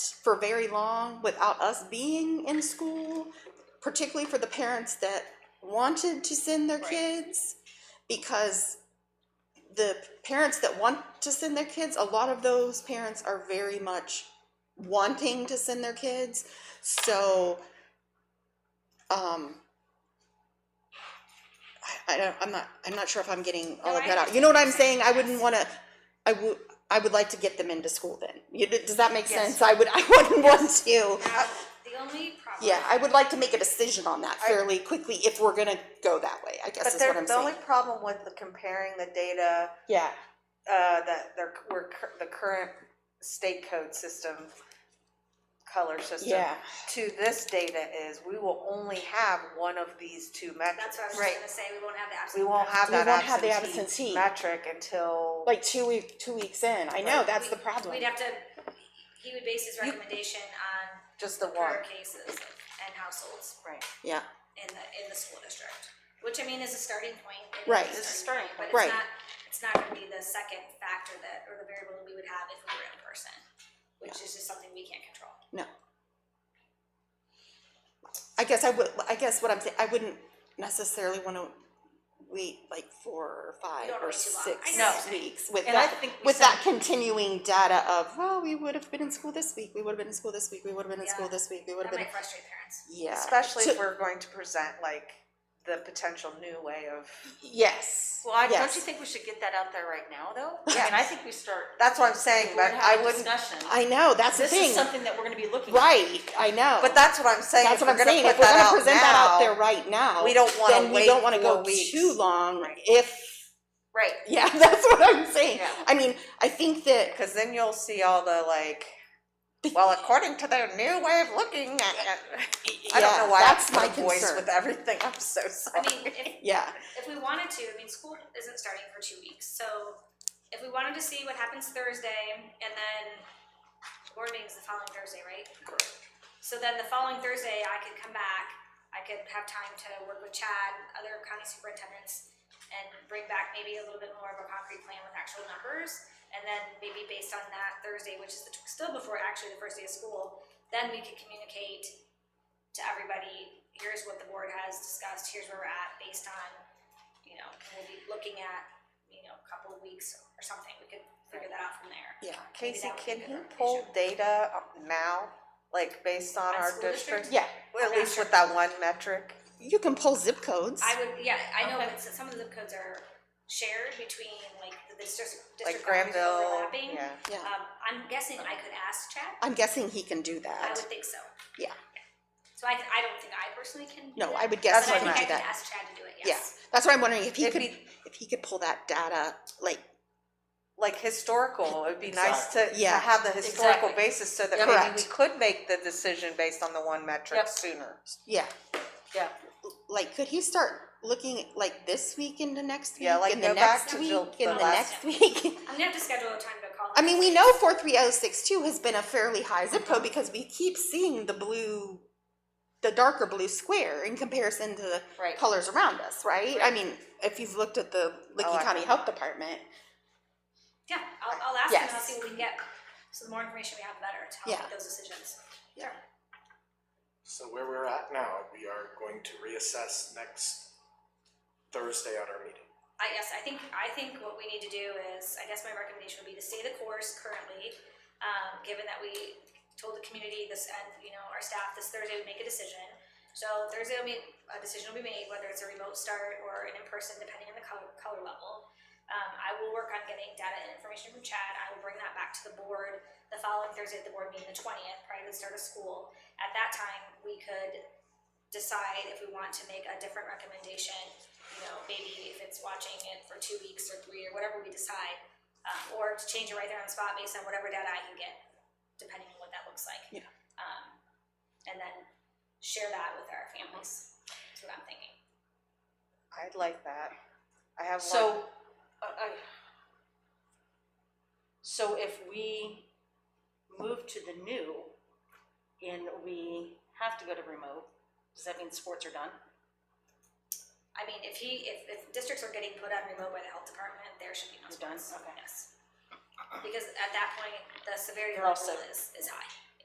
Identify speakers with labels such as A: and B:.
A: s- for very long without us being in school, particularly for the parents that wanted to send their
B: Right.
A: kids, because the parents that want to send their kids, a lot of those parents are very much wanting to send their kids. So, um, I, I don't, I'm not, I'm not sure if I'm getting all
B: No,
A: of
B: I
A: that out. You know what I'm saying? I wouldn't
B: Yes.
A: wanna, I would, I would like to get them into school then. You- Does that make
B: Yes.
A: sense? I would, I wouldn't want to.
B: Now, the only problem.
A: Yeah, I would like to make a decision on that fairly quickly if we're gonna go that way, I guess
C: But
A: is
C: there-
A: what I'm
C: the only
A: saying.
C: problem with the comparing the data,
A: Yeah,
C: uh, that there were, cur- the current state code system, color system.
A: yeah,
C: To this data is, we will only have one of these two metrics.
B: That's what I was just gonna say, we won't have the
C: We
B: absolute.
C: won't have
A: We
C: that
A: won't have the absentee.
C: absentee metric until,
A: like two week, two weeks in, I know, that's the
B: We'd-
A: problem.
B: We'd have to, he would base his recommendation on
C: just the one.
B: per cases and households
C: Right.
A: Yeah,
B: in the, in the school district, which I mean is a starting point. it is
A: Right.
C: It's a starting
B: But
A: point. Right.
B: it's not, it's not gonna be the second factor that, or the variable that we would have if we were in person, which is just something we can't control.
A: no. I guess I would, I guess what I'm saying, I wouldn't necessarily wanna wait like four or five
B: don't wanna
A: or
B: wait too long. I
A: six
B: know what you're saying.
A: weeks with
D: And I
A: that,
D: think we
A: with that continuing data of, well, we would have been in school this week, we would have been in school this week, we would have been in
B: Yeah.
A: school this week, we would have
B: That
A: been,
B: might frustrate parents.
A: yeah.
C: Especially
A: So-
C: if we're going to present like the potential new way of,
A: Yes.
D: Well, I, don't
A: yes.
D: you think we should get that out there right now, though? I
C: Yes.
D: mean, I think we start.
C: that's what I'm saying,
D: we're
C: but
D: gonna have
C: I
D: a
C: wouldn't,
D: Discussion.
A: I know, that's the
D: This
A: thing.
D: is something that we're gonna be looking. at.
A: Right, I know.
C: but that's what I'm saying.
A: That's
C: if
A: what I'm
C: we're gonna
A: saying.
C: put
A: If we're
C: that
A: gonna
C: out
A: present that out
C: now-
A: there right now,
C: we don't wanna
A: then we
C: wait
A: don't wanna go
C: four weeks.
A: too long
C: Right.
A: if,
D: Right.
A: yeah, that's what I'm saying.
D: Yeah.
A: I mean, I think that,
C: Because then you'll see all the like, well, according to their new way of looking at, at- I don't
A: yeah,
C: know why
A: that's
C: I put
A: my
C: a voice
A: concern.
C: with everything. I'm so
B: I
C: sorry.
B: mean, if,
A: Yeah,
B: if we wanted to, I mean, school isn't starting for two weeks, so if we wanted to see what happens Thursday, and then board meeting's the following Thursday, right? So then the following Thursday, I could come back, I could have time to work with Chad, other county superintendents, and bring back maybe a little bit more of a concrete plan with actual numbers, and then maybe based on that Thursday, which is the, tw- still before actually the first day of school, then we could communicate to everybody, here's what the board has discussed, here's where we're at, based on you know, we'll be looking at, you know, a couple of weeks or something, we could figure that out from there.
A: yeah,
C: Casey,
B: that would be
C: can
B: good
C: you pull data up now, like based on
B: On
C: our
B: school
C: district?
B: districts?
A: yeah.
C: Well, At
B: I'm not
C: least
B: sure.
C: with that one metric.
A: You can pull zip codes.
B: I would, yeah, I know,
D: Okay.
B: that some of the zip codes are shared between like the district,
C: Like
B: district boundaries are
C: Granville,
B: overlapping.
C: yeah.
A: Yeah,
B: Um, I'm guessing I could ask Chad,
A: I'm guessing he can do
B: I
A: that.
B: would think so.
A: Yeah.
B: So I, I don't think I personally can. do
A: No,
B: that,
A: I would guess
B: but
C: he
B: I
C: can
B: think
A: do
B: I could
A: that.
B: ask Chad to do it,
A: Yeah,
B: yes.
A: that's what I'm wondering, if he
C: It'd
A: could,
C: be-
A: if he could pull that data, like,
C: Like historical, it'd be nice to, to
A: Yeah.
C: have the historical
D: Exactly.
C: basis so that
A: Yeah.
C: maybe
A: Correct.
C: we could make the decision based on the one metric
D: Yep.
C: sooner.
A: yeah.
D: Yeah.
A: like could he start looking like this week into next week
C: Yeah, like,
A: and the
C: go back
A: next
C: to
A: week
C: the-
A: and
C: the
A: the
C: last-
A: next week
B: I'm gonna have to schedule a time to call.
A: i mean we know 43062 has been a fairly high zip code because we keep seeing the blue the darker blue square in comparison to the
D: Right.
A: colors around us right i mean if you've looked at the licking
C: Oh, I-
A: county health department
B: Yeah, I'll, I'll ask him, and I'll
A: Yes.
B: see what we can get, so the more information we have, the better, to
A: Yeah.
B: help make those decisions.
A: Yeah.
B: Sure.
E: So where we're at now, we are going to reassess next Thursday at our meeting.
B: I guess, I think, I think what we need to do is, I guess my recommendation would be to stay the course currently, um, given that we told the community this, and, you know, our staff this Thursday would make a decision. So Thursday will be, a decision will be made, whether it's a remote start or an in-person, depending on the color, color level. Um, I will work on getting data and information from Chad, I will bring that back to the board the following Thursday at the board meeting, the twentieth, prior to the start of school. At that time, we could decide if we want to make a different recommendation, you know, maybe if it's watching it for two weeks or three or whatever we decide, um, or to change it right there on the spot based on whatever data I can get, depending on what that looks like.
A: Yeah.
B: Um, and then share that with our families, is what I'm thinking.
C: I'd like that. I have one,
D: So, I, I- so if we move to the new and we have to go to remote, does that mean sports are done?
B: I mean, if he, if, if districts are getting put on remote by the health department, there should be no
D: You're done?
B: response.
D: Okay.
B: Yes. Because at that point, the severity
D: They're all
B: level
D: set.
B: is, is high.